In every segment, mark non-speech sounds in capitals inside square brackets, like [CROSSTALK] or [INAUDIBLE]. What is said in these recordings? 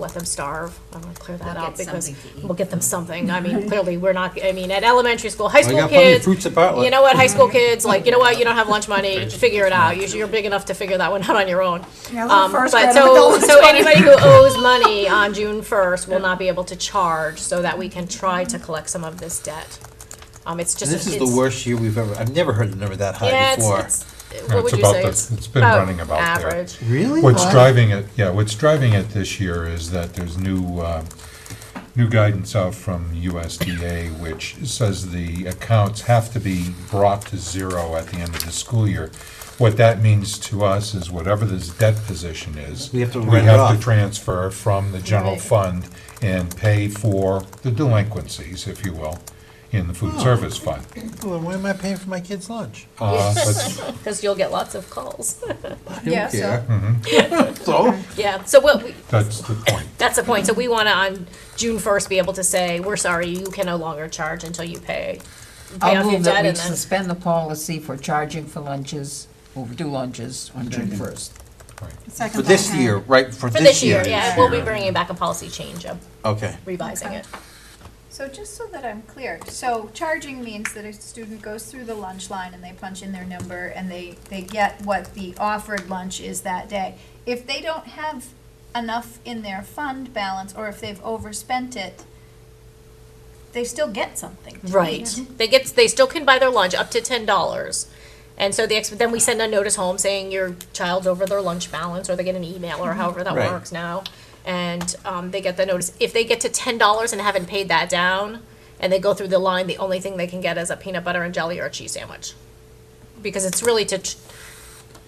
let them starve. I'm gonna clear that We'll up get because something to eat. we'll get them something. I mean, clearly, we're not, I mean, at elementary school, high Well, you school got plenty of kids. fruits at potluck. You know what, high [LAUGHS] school kids, like, you know what, you don't have lunch money, figure it out. Usually, you're big enough to figure that one out on your own. Yeah, little Um, first but grade so, adults. so anybody [LAUGHS] who owes money on June first will not be able to charge so that we can try to collect some of this debt. Um, it's just. And this is the it's- worst year we've ever, I've never heard a number that Yeah, high it's, before. it's, Yeah, what it's would you about say? the- It's it's been about running about there. Average. Really? What's Huh? driving it, yeah, what's driving it this year is that there's new, uh, new guidance out from USDA, which says the accounts have to be brought to zero at the end of the school year. What that means to us is whatever this debt position is, We have to we write it have off. to transfer from the general Right. fund and pay for the delinquencies, if you will, in the food service fund. Well, then why am I paying for my kid's lunch? Uh, but Because you'll get lots of calls. [LAUGHS] I Yeah, don't [LAUGHS] so- care. So, Yeah, so what, we- that's the point. that's the point. So we want to, on June first, be able to say, we're sorry, you can no longer charge until you pay. pay I'll off your move that debt we and then- suspend the policy for charging for lunches, overdue lunches on June first. for this year, right, for For this this year? year, yeah, we'll be bringing back a policy change of Okay. revising Okay. it. So just so that I'm clear, so charging means that a student goes through the lunch line and they punch in their number and they, they get what the offered lunch is that day. If they don't have enough in their fund balance, or if they've overspent it, they still get something. don't Right. Mm-hmm. They get, they still can buy their lunch up to ten dollars. And so the, ex- then we send a notice home saying your child's over their lunch balance, or they get an email, or however that Right. works now. And, um, they get the notice. If they get to ten dollars and haven't paid that down, and they go through the line, the only thing they can get is a peanut butter and jelly or a cheese sandwich. Because it's really to, ch-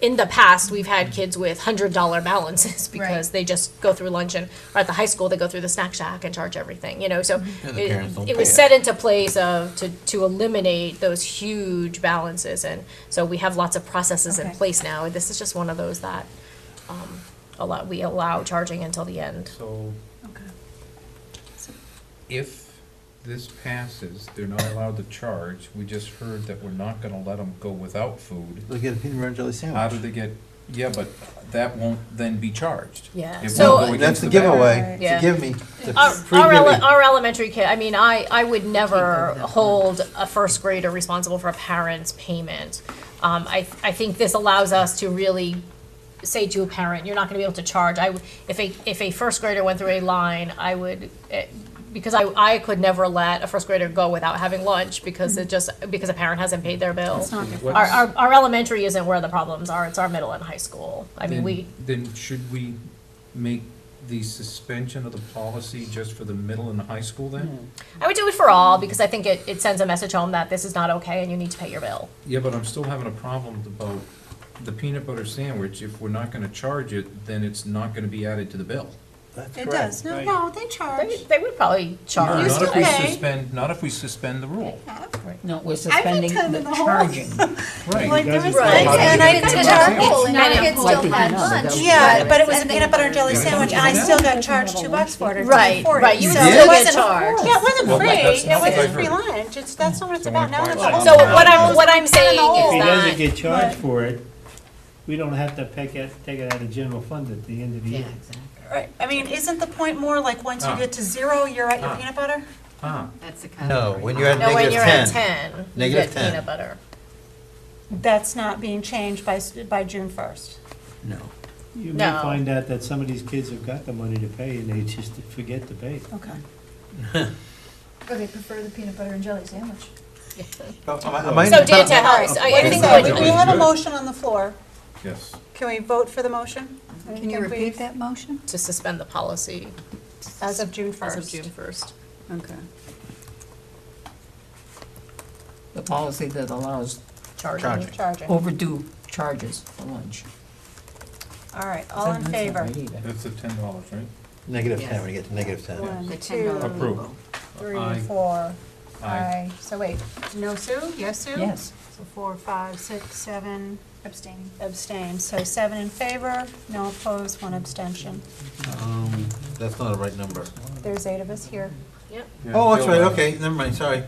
in the past, we've had kids with hundred dollar balances [LAUGHS] because Right. they just go through lunch and, or at the high school, they go through the snack shack and charge everything, you know, so. Yeah, the parents don't It it pay was it. set into place of, to, to eliminate those huge balances, and so we have lots of processes in Okay. place now, and this is just one of those that, um, allow, we allow charging until the end. So Okay. if this passes, they're not allowed to charge, we just heard that we're not gonna let them go without food. They'll get a peanut butter and jelly How do sandwich. they get, yeah, but that won't then be charged. Yeah. It won't So- go Well, against That's the the back. giveaway, Yeah. forgive me. The Our, free our, ele- giving. our elementary kid, I mean, I, I would never hold a first grader responsible for a parent's payment. Um, I, I think this allows us to really say to a parent, you're not gonna be able to charge, I, would- if a, if a first grader went through a line, I would, eh, because I, I could never let a first grader go without having lunch, because it just, because a parent hasn't paid their bill. What's- Our, our, our elementary isn't where the problems are, it's our middle and high school, I mean, Then- we, Then should we make the suspension of the policy just for the middle and high school then? I would do it for all, because I think it, it sends a message home that this is not okay and you need to pay your bill. Yeah, but I'm still having a problem about the peanut butter sandwich, if we're not gonna charge it, then it's not gonna be added to the bill. That's It correct. does, no, no, they charge. They, they would probably No, charge. Not if we pay. suspend, not if we suspend the rule. No, we're suspending tell the them the whole- charging. Like, Right. there was Right. lunch and I didn't charge. Well, and not the a kids whole still had thing. lunch. Yeah, but it was a and peanut they- butter and jelly sandwich, and I still got charged two bucks for it, or two Right, forty. right, you So would it still wasn't get charged. Yeah, it wasn't Well, free, that's it not what I wasn't free heard. lunch, it's, that's not what it's Don't about, now inquire. it's a whole. So what I'm, what I'm saying If If he doesn't is that, get charged for it, we don't have to pick it, take it out of general fund at the end of the year. Right, I mean, isn't the point more like, once you Ah. get to zero, you're at your Ah. peanut butter? Ah, That's the No, when you're at no, when negative you're at ten. ten, you Negative get 10. peanut butter. That's not being changed by, s- by June first. No. You No. may find out that some of these kids have got the money to pay and they just forget to pay. Okay. Or they prefer the peanut butter and jelly sandwich. Am I- am I in So the top- Dan, to help, us, I I Wait a think second, that we- we have a motion on the floor, yes. can we vote for the motion? Can you repeat that motion? to suspend the policy As of June as of first. June first. Okay. The policy that allows Charging. Charging, all overdue charges for lunch. right, all in That's not favor? right either. That's the ten dollars, right? Negative ten, when you get to negative ten. One, two, Approve. three, Aye. four. Aye. Aye. So wait, no Sue, yes Sue? Yes. So four, five, six, seven Abstaining. abstain. So seven in favor, no opposed, one abstention. Um, That's not a right number. There's eight of us here. Yep. Oh, that's right, okay, never mind, sorry.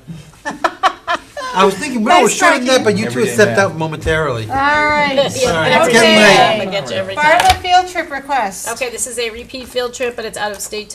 I was thinking, we were Nice shorting that, but you two Everyday stepped math. out momentarily. All [LAUGHS] right. Sorry, it's getting late. I get you every time. Bartlett field trip request. Okay, this is a repeat field trip, but it's out of state to